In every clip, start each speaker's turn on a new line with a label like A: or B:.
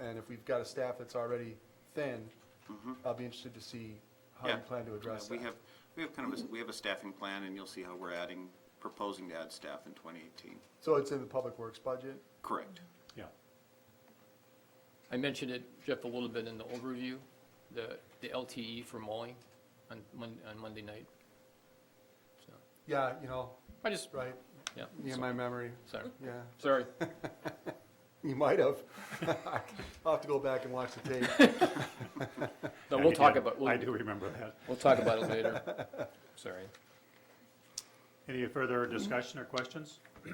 A: and if we've got a staff that's already thin, I'll be interested to see how you
B: Mm-hmm. Yeah.
A: plan to address
B: Yeah,
A: that.
B: We have, we have kind of, a we have a staffing plan, and you'll see how we're adding, proposing to add staff in 2018.
A: So it's in the public works budget?
B: Correct.
C: Yeah.
D: I mentioned it, Jeff, a little bit in the overview, the, the LTE for mowing on Mon, on Monday night. So,
A: Yeah, you know,
D: I just,
A: right,
D: yeah,
A: yeah,
D: so-
A: my memory,
D: sorry,
A: yeah,
D: sorry.
A: you might have. I'll have to go back and watch the tape.
D: No,
C: Yeah,
D: we'll
C: he
D: talk
C: did.
D: about,
C: I
D: we'll,
C: do remember that.
D: we'll talk about it later. Sorry.
C: Any further discussion or questions?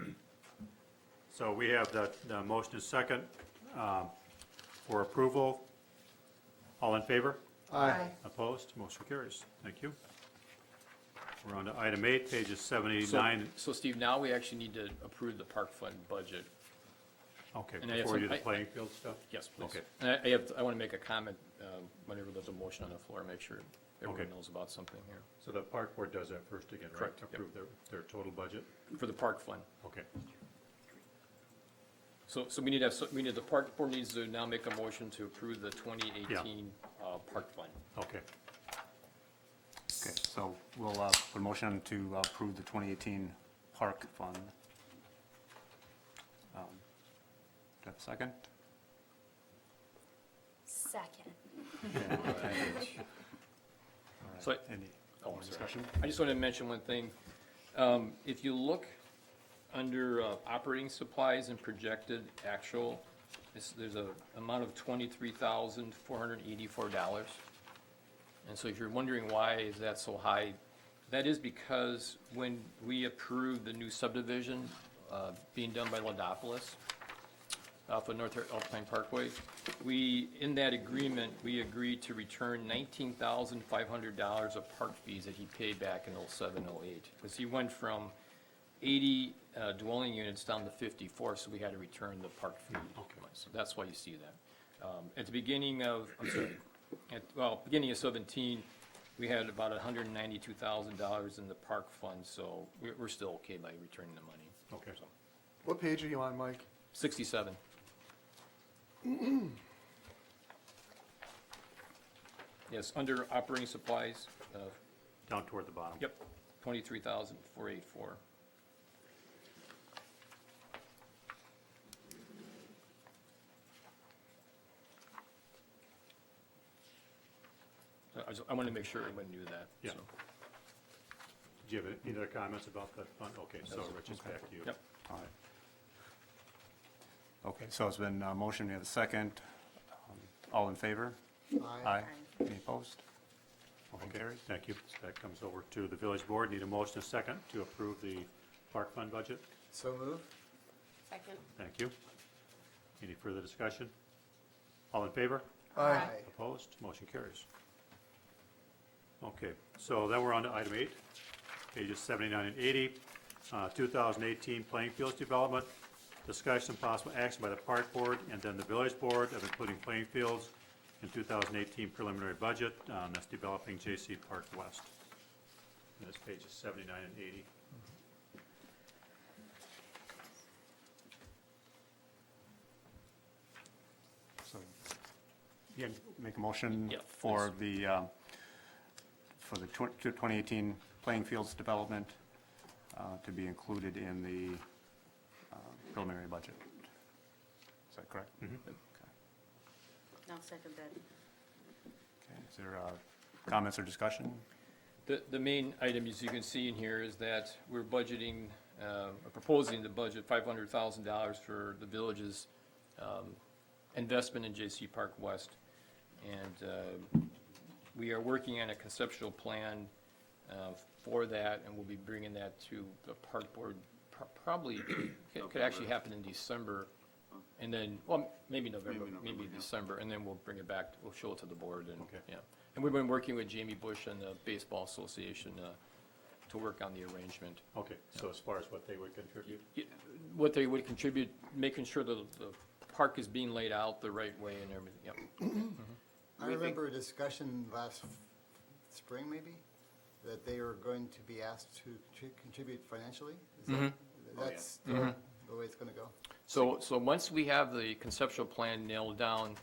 C: So we have the, the motion is second, um, for approval. All in favor?
A: Aye.
C: Opposed? Motion carries. Thank you. We're on to item eight, pages
D: So-
C: seventy-nine.
D: So Steve, now we actually need to approve the park fund budget.
C: Okay,
D: and I have
C: before we do
D: some-
C: the
D: I-
C: playing field stuff?
D: Yes, please.
C: Okay.
D: And I, I have, I want to make a comment, um, whenever there's a motion on the floor, make sure everyone
C: Okay.
D: knows about something here,
C: So the park board does that first again, right?
D: Correct, yep.
C: Approve their, their total budget?
D: for the park fund.
C: Okay.
D: So, so we need to have, so we need, the park board needs to now make a motion to approve the twenty eighteen, uh, park fund.
C: Okay,
E: Okay, so we'll uh, put a motion to approve the 2018 Park Fund. Um, Do I have a second?
F: Second.
D: So, I-
E: Any
D: Oh,
E: more
D: sorry.
E: discussion?
D: I just wanted to mention one thing. Um, If you look under uh, operating supplies and projected actual, it's- there's a amount of $23,484. And so if you're wondering why is that so high, that is because when we approved the new subdivision uh, being done by Ladopolis off of North Alpine Parkway, we, in that agreement, we agreed to return $19,500 of park fees that he paid back in '07, '08. Because he went from 80 uh, dwelling units down to 54, so we had to return the park fee. So that's why you see that. Um, At the beginning of, I'm sorry, at, well, beginning of 17, we had about $192,000 in the park fund, so we're, we're still okay by returning the money.
C: okay.
A: What page are you on, Mike?
D: 67. Yes, under operating supplies, uh,
C: Down toward the bottom.
D: yep, 23,484. So I just, I wanted to make sure everyone knew that.
C: Yeah.
D: so.
C: Do you have any other comments about that fund? Okay, so
D: That's-
C: Rich, it's back to you.
D: Yep.
E: All right. Okay, so it's been uh motion, we have a second. Um, All in favor? Aye. Any opposed? Motion
C: Okay,
E: carries.
C: thank you. So That comes over to the village board. Need a motion and a second to approve the park fund budget.
A: So moved?
F: Second.
C: Thank you. Any further discussion? All in favor?
A: Aye.
C: Opposed? Motion carries. Okay, so then we're on to item eight, pages 79 and 80, uh, 2018 playing fields development. Discussion and possible action by the park board and then the village board of including playing fields in 2018 preliminary budget, um, that's developing J.C. Park West. And that's pages 79 and 80.
E: So, yeah, make a motion
D: Yeah,
E: for the, um, for the twen- to 2018 playing fields development uh, to be included in the uh, preliminary budget. Is that correct?
F: I'll second that.
E: Okay, Is there uh, comments or discussion?
D: The, the main item, as you can see in here, is that we're budgeting, um, or proposing to budget five hundred thousand dollars for the village's um, investment in J.C. Park West. And uh, we are working on a conceptual plan uh, for that, and we'll be bringing that to the park board, pro- probably, it could actually happen in December, and then, well, maybe November,
B: Maybe November,
D: maybe
B: yeah.
D: December, and then we'll bring it back, we'll show it to the board, and,
C: Okay.
D: yeah. And we've been working with Jamie Bush and the Baseball Association uh, to work on the arrangement.
C: Okay, so as far as what they would contribute?
D: Y- What they would contribute, making sure the, the park is being laid out the right way and everything, yep.
G: I
B: We think-
G: remember a discussion last f- spring, maybe, that they were going to be asked to contri- contribute financially. Is that-
B: Mm-hmm. Oh,
G: That's the the way it's going to go?
D: So, so once we have the conceptual plan nailed down,